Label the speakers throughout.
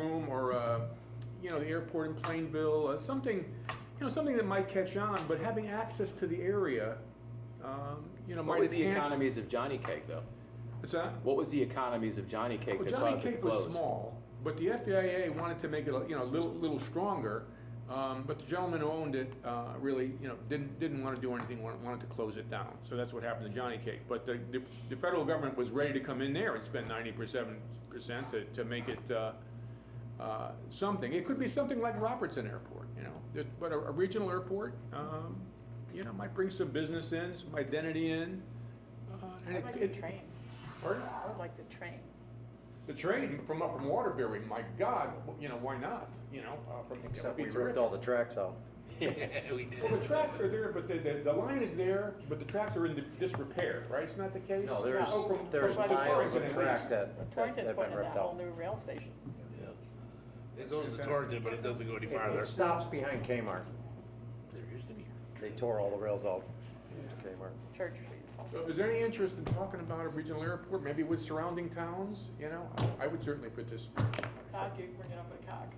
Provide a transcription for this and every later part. Speaker 1: uh, know, the airport in Plainville, uh, something, you know, something that might catch on, but having access to the area, um, you know,
Speaker 2: What
Speaker 1: might
Speaker 2: was the
Speaker 1: enhance.
Speaker 2: economies of Johnny Cake, though?
Speaker 1: What's that?
Speaker 2: What was the economies of Johnny Cake
Speaker 1: Well,
Speaker 2: that
Speaker 1: Johnny
Speaker 2: caused it to
Speaker 1: Cake was
Speaker 2: close?
Speaker 1: small, but the FIA wanted to make it, you know, a little, little stronger. Um, but the gentleman who owned it, uh, really, you know, didn't, didn't want to do anything, wanted, wanted to close it down. So that's what happened to Johnny Cake. But the, the, the federal government was ready to come in there and spend ninety percent to, to make it, uh, uh, something. It could be something like Robertson Airport, you know, It- but a, a regional airport, um, you know, might bring some business in, some identity in. Uh, and
Speaker 3: I
Speaker 1: it
Speaker 3: like the
Speaker 1: it-
Speaker 3: train.
Speaker 1: Pardon?
Speaker 3: I would like the train.
Speaker 1: The train from up from Waterbury, my God, you know, why not? You know, uh, from that would
Speaker 4: Except
Speaker 1: be
Speaker 4: we ripped
Speaker 1: terrific.
Speaker 4: all the tracks out.
Speaker 1: Well, the tracks are there, but the, the, the line is there, but the tracks are in disrepair, right? It's not the case?
Speaker 4: No,
Speaker 3: Oh,
Speaker 4: there's,
Speaker 3: from-
Speaker 4: there's
Speaker 3: from the
Speaker 4: miles of
Speaker 1: Torrington
Speaker 4: track
Speaker 1: at
Speaker 4: that
Speaker 3: From
Speaker 4: that
Speaker 3: Torrington's
Speaker 4: have
Speaker 3: point
Speaker 4: been
Speaker 3: of that
Speaker 4: ripped
Speaker 3: whole
Speaker 4: out.
Speaker 3: new rail station.
Speaker 5: Yeah. It goes to Torrington, but it doesn't go any
Speaker 4: It-
Speaker 5: farther.
Speaker 4: It stops behind Kmart.
Speaker 5: There used to be.
Speaker 4: They tore all the rails out to Kmart.
Speaker 3: Church Street's
Speaker 1: So
Speaker 3: also.
Speaker 1: is there any interest in talking about a regional airport, maybe with surrounding towns, you know? I would certainly participate.
Speaker 3: Cog, you bring it up at Cog.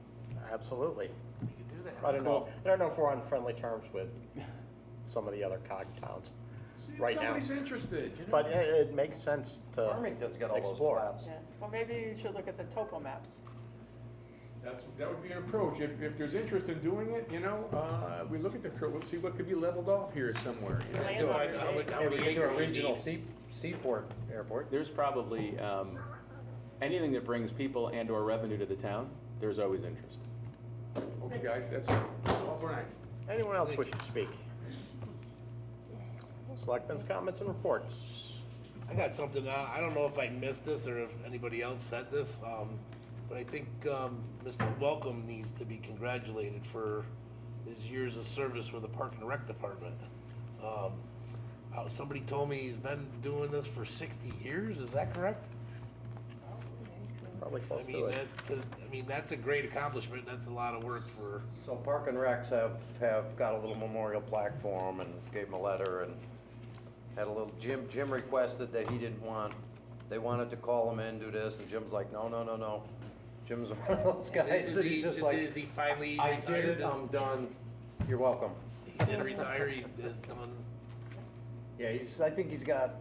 Speaker 6: Absolutely.
Speaker 5: We could do that.
Speaker 6: I don't know, I don't know if we're on friendly terms with some of the other cog towns.
Speaker 1: See if
Speaker 6: Right now.
Speaker 1: Somebody's interested, you know?
Speaker 6: But it, it makes sense to
Speaker 4: Farmington's got all those
Speaker 6: explore.
Speaker 4: flats.
Speaker 3: Yeah, well, maybe you should look at the topo maps.
Speaker 1: That's, that would be an approach. If, if there's interest in doing it, you know, uh, we look at the, cur- we'll see what could be leveled off here somewhere, you know?
Speaker 3: Land
Speaker 5: Do
Speaker 3: on
Speaker 5: I-
Speaker 3: your
Speaker 5: how would-
Speaker 3: name.
Speaker 5: how would
Speaker 4: Maybe we
Speaker 5: the
Speaker 4: could do a
Speaker 5: acre
Speaker 4: regional
Speaker 5: be?
Speaker 4: sea- seaport airport.
Speaker 2: There's probably, um, anything that brings people and/or revenue to the town, there's always interest.
Speaker 1: Okay, guys, that's all for tonight.
Speaker 6: Anyone else wish to speak? Selectmen's comments and reports.
Speaker 5: I got something, uh, I don't know if I missed this or if anybody else said this, um, but I think, um, Mr. Welcome needs to be congratulated for his years of service with the Park and Rec Department. Um, uh, somebody told me he's been doing this for sixty years, is that correct?
Speaker 6: Probably
Speaker 5: I
Speaker 6: close to
Speaker 5: mean,
Speaker 6: it.
Speaker 5: that, uh, I mean, that's a great accomplishment, and that's a lot of work for,
Speaker 4: So Park and Recs have, have got a little memorial plaque for him and gave him a letter and had a little, Jim, Jim requested that he didn't want, they wanted to call him in, do this, and Jim's like, no, no, no, no. Jim's one of those guys
Speaker 5: is
Speaker 4: that
Speaker 5: he,
Speaker 4: he's just
Speaker 5: is
Speaker 4: like,
Speaker 5: is he finally
Speaker 4: I did um,
Speaker 5: retired?
Speaker 4: it, I'm done, you're welcome.
Speaker 5: He did retire, he's, is done.
Speaker 4: Yeah, he's, I think he's got,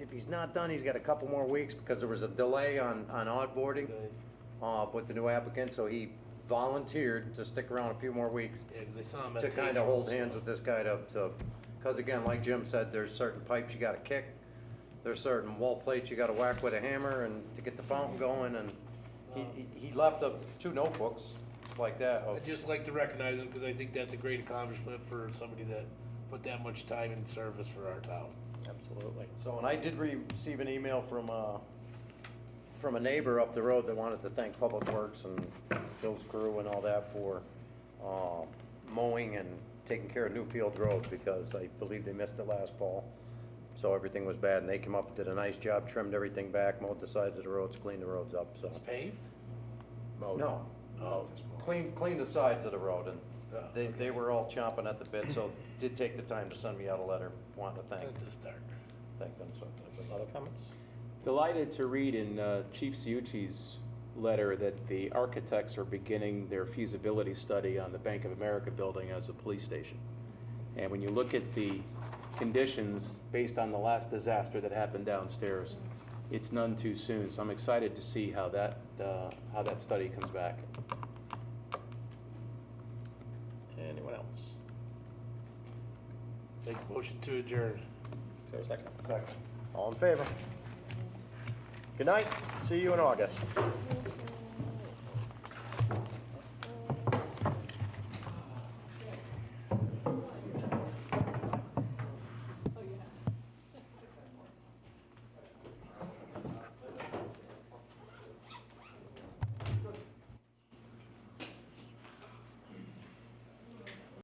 Speaker 4: if he's not done, he's got a couple more weeks because there was a delay on, on onboarding
Speaker 5: Okay.
Speaker 4: uh, with the new applicant, so he volunteered to stick around a few more weeks
Speaker 5: Yeah, 'cause I saw him at.
Speaker 4: to kind
Speaker 5: Tatrums,
Speaker 4: of hold
Speaker 5: so-
Speaker 4: hands with this guy to, to, because again, like Jim said, there's certain pipes you gotta kick. There's certain wall plates you gotta whack with a hammer and to get the fountain going and he, he- he left up two notebooks like that.
Speaker 5: I'd
Speaker 4: of-
Speaker 5: just like to recognize him because I think that's a great accomplishment for somebody that put that much time and service for our town.
Speaker 6: Absolutely.
Speaker 4: So, and I did receive an email from, uh, from a neighbor up the road that wanted to thank Public Works and Bill's crew and all that for, uh, mowing and taking care of Newfield Road because I believe they missed it last fall. So everything was bad and they came up, did a nice job, trimmed everything back, mowed the sides of the roads, cleaned the roads up, so.
Speaker 5: It's paved?
Speaker 4: No,
Speaker 5: Oh.
Speaker 6: uh,
Speaker 4: cleaned, cleaned the sides of the road and they, they were all chomping at the bit, so did take the time to send me out a letter wanting to
Speaker 5: At
Speaker 4: thank,
Speaker 5: the start.
Speaker 4: thank them, so.
Speaker 6: Other comments?
Speaker 2: Delighted to read in uh, Chief Ciucci's letter that the architects are beginning their feasibility study on the Bank of America building as a police station. And when you look at the conditions based on the last disaster that happened downstairs, it's none too soon. So I'm excited to see how that, uh, how that study comes back.
Speaker 6: Anyone else?
Speaker 5: Make a motion to adjourn.
Speaker 6: Is there a second? Second. All in favor? Good night, see you in August.